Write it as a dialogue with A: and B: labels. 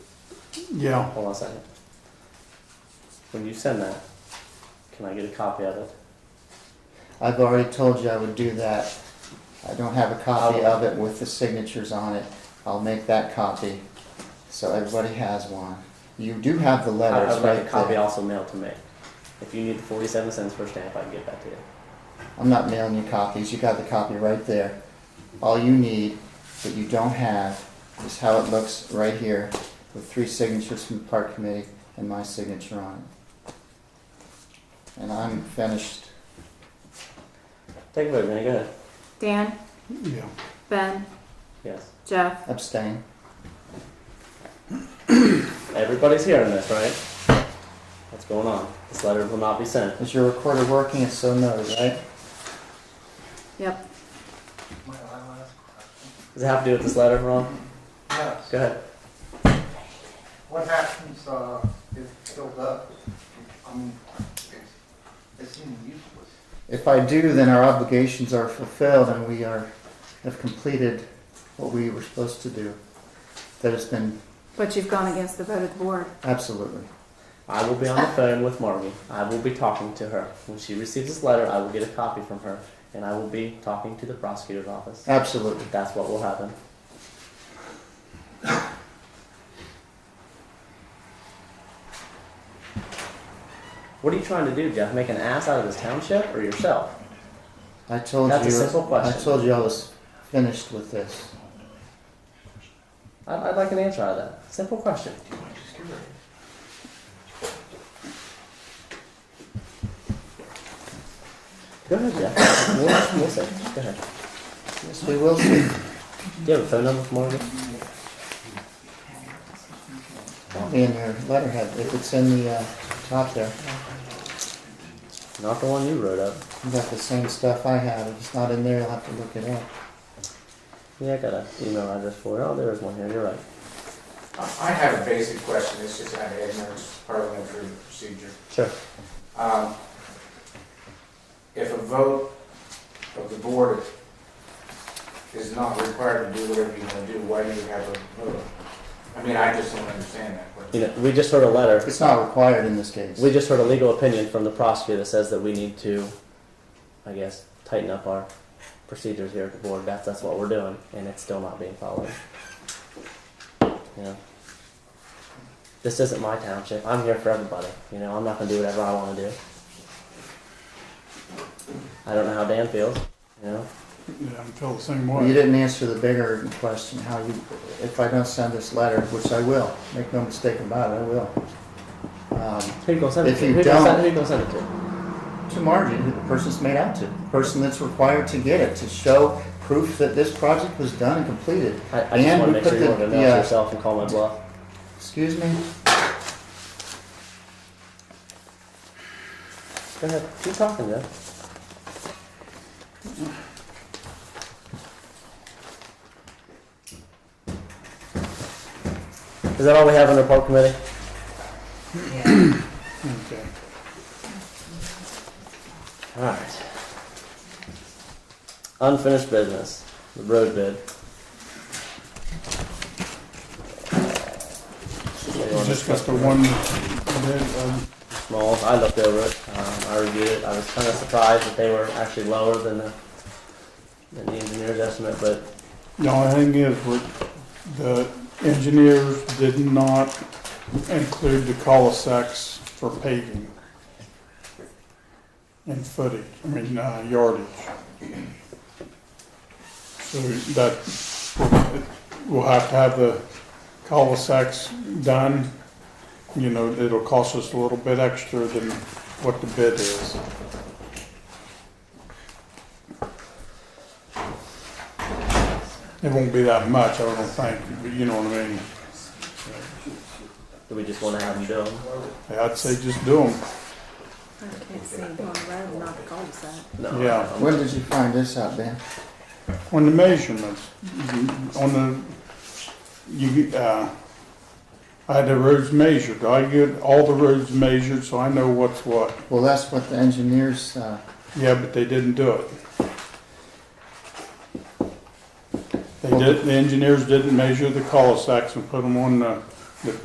A: Yeah,
B: Hold on a second. When you send that, can I get a copy of it?
C: I've already told you I would do that. I don't have a copy of it with the signatures on it. I'll make that copy, so everybody has one. You do have the
B: I-
C: letters
B: I'd like a
C: right
B: copy
C: there.
B: also mailed to me. If you need the forty-seven cents per stamp, I can get that to you.
C: I'm not mailing you copies, you got the copy right there. All you need, that you don't have, is how it looks right here, with three signatures from the park committee and my signature on it. And I'm finished.
B: Take a vote, Vinnie, go ahead.
D: Dan,
A: yeah.
D: Ben,
B: Yes.
D: Jeff,
C: Abstain.
B: Everybody's hearing this, right? What's going on? This letter will not be sent.
C: Is your recorder working? It's so noted, right?
D: yep.
E: May I ask a question?
B: Does it have to do with this letter, Ron?
E: Yes.
B: Go ahead.
E: What happens, uh, if it's filled up? I mean, it's, it's even useless.
C: If I do, then our obligations are fulfilled and we are, have completed what we were supposed to do. That has been,
D: But you've gone against the vote of the board.
C: absolutely.
B: I will be on the phone with Margie. I will be talking to her. When she receives this letter, I will get a copy from her, and I will be talking to the prosecutor's office.
C: Absolutely.
B: That's what will happen. What are you trying to do, Jeff? Make an ass out of this township or yourself?
C: I told you.
B: That's a simple question.
C: I told you I was finished with this.
B: I'd, I'd like an answer out of that. Simple question. Go ahead, Jeff. We'll, we'll see. Go ahead.
C: Yes, we will see.
B: Do you have a phone number for Morgan?
C: Probably in your letterhead, if it's in the uh, top there.
B: Not the one you wrote up.
C: You got the same stuff I have. If it's not in there, you'll have to look it up.
B: Yeah, I got an email address for it. Oh, there is one here. You're right.
F: I I have a basic question, it's just out of ignorance, parliamentary procedure.
B: Sure.
F: Um, If a vote of the board is not required to do whatever you want to do, why do you have a vote? I mean, I just don't understand that
B: You
F: question.
B: know, we just heard a letter.
C: It's not required in this case.
B: We just heard a legal opinion from the prosecutor that says that we need to, I guess, tighten up our procedures here at the board. That's that's what we're doing, and it's still not being followed. You know, this isn't my township. I'm here for everybody. You know, I'm not gonna do whatever I want to do. I don't know how Dan feels. You know,
A: Yeah, I feel the same
C: You
A: way.
C: didn't answer the bigger question, how you, if I don't send this letter, which I will, make no mistake about it, I will. Um,
B: who you gonna send it
C: If
B: to?
C: you
B: who, gonna
C: don't-
B: send, who you gonna send it to?
C: to Margie, who the person's made out to, the person that's required to get it, to show proof that this project was done and completed.
B: I, I just
C: And
B: want to
C: we
B: make sure
C: put
B: you
C: the-
B: want to announce
C: yeah.
B: yourself and call my bluff.
C: Excuse me?
B: Go ahead. Keep talking, Jeff. Is that all we have under park committee?
A: Okay.
B: Alright. Unfinished business, the road bid.
A: You just got the one, that, um,
B: small. I looked over it. Um, I reviewed it. I was kind of surprised that they were actually lower than the, than the engineer's estimate, but
A: the only thing is, we're- the engineers did not include the cul-de-sacs for paving and footage, I mean, uh, yardage. So that, we'll have to have the cul-de-sacs done. You know, it'll cost us a little bit extra than what the bid is. It won't be that much, I don't think, but you know what I mean?
B: do we just want to have them do 'em?
A: I'd say just do them.
D: I can't see on the road, not the cul-de-sac.
B: No.
A: Yeah.
B: I'm-
C: When did you find this out, Ben?
A: On the measurements, you- on the, you, uh, I had the roads measured, I get all the roads measured, so I know what's what.
C: Well, that's what the engineers, uh,
A: Yeah, but they didn't do it. They did, the engineers didn't measure the cul-de-sacs and put them on the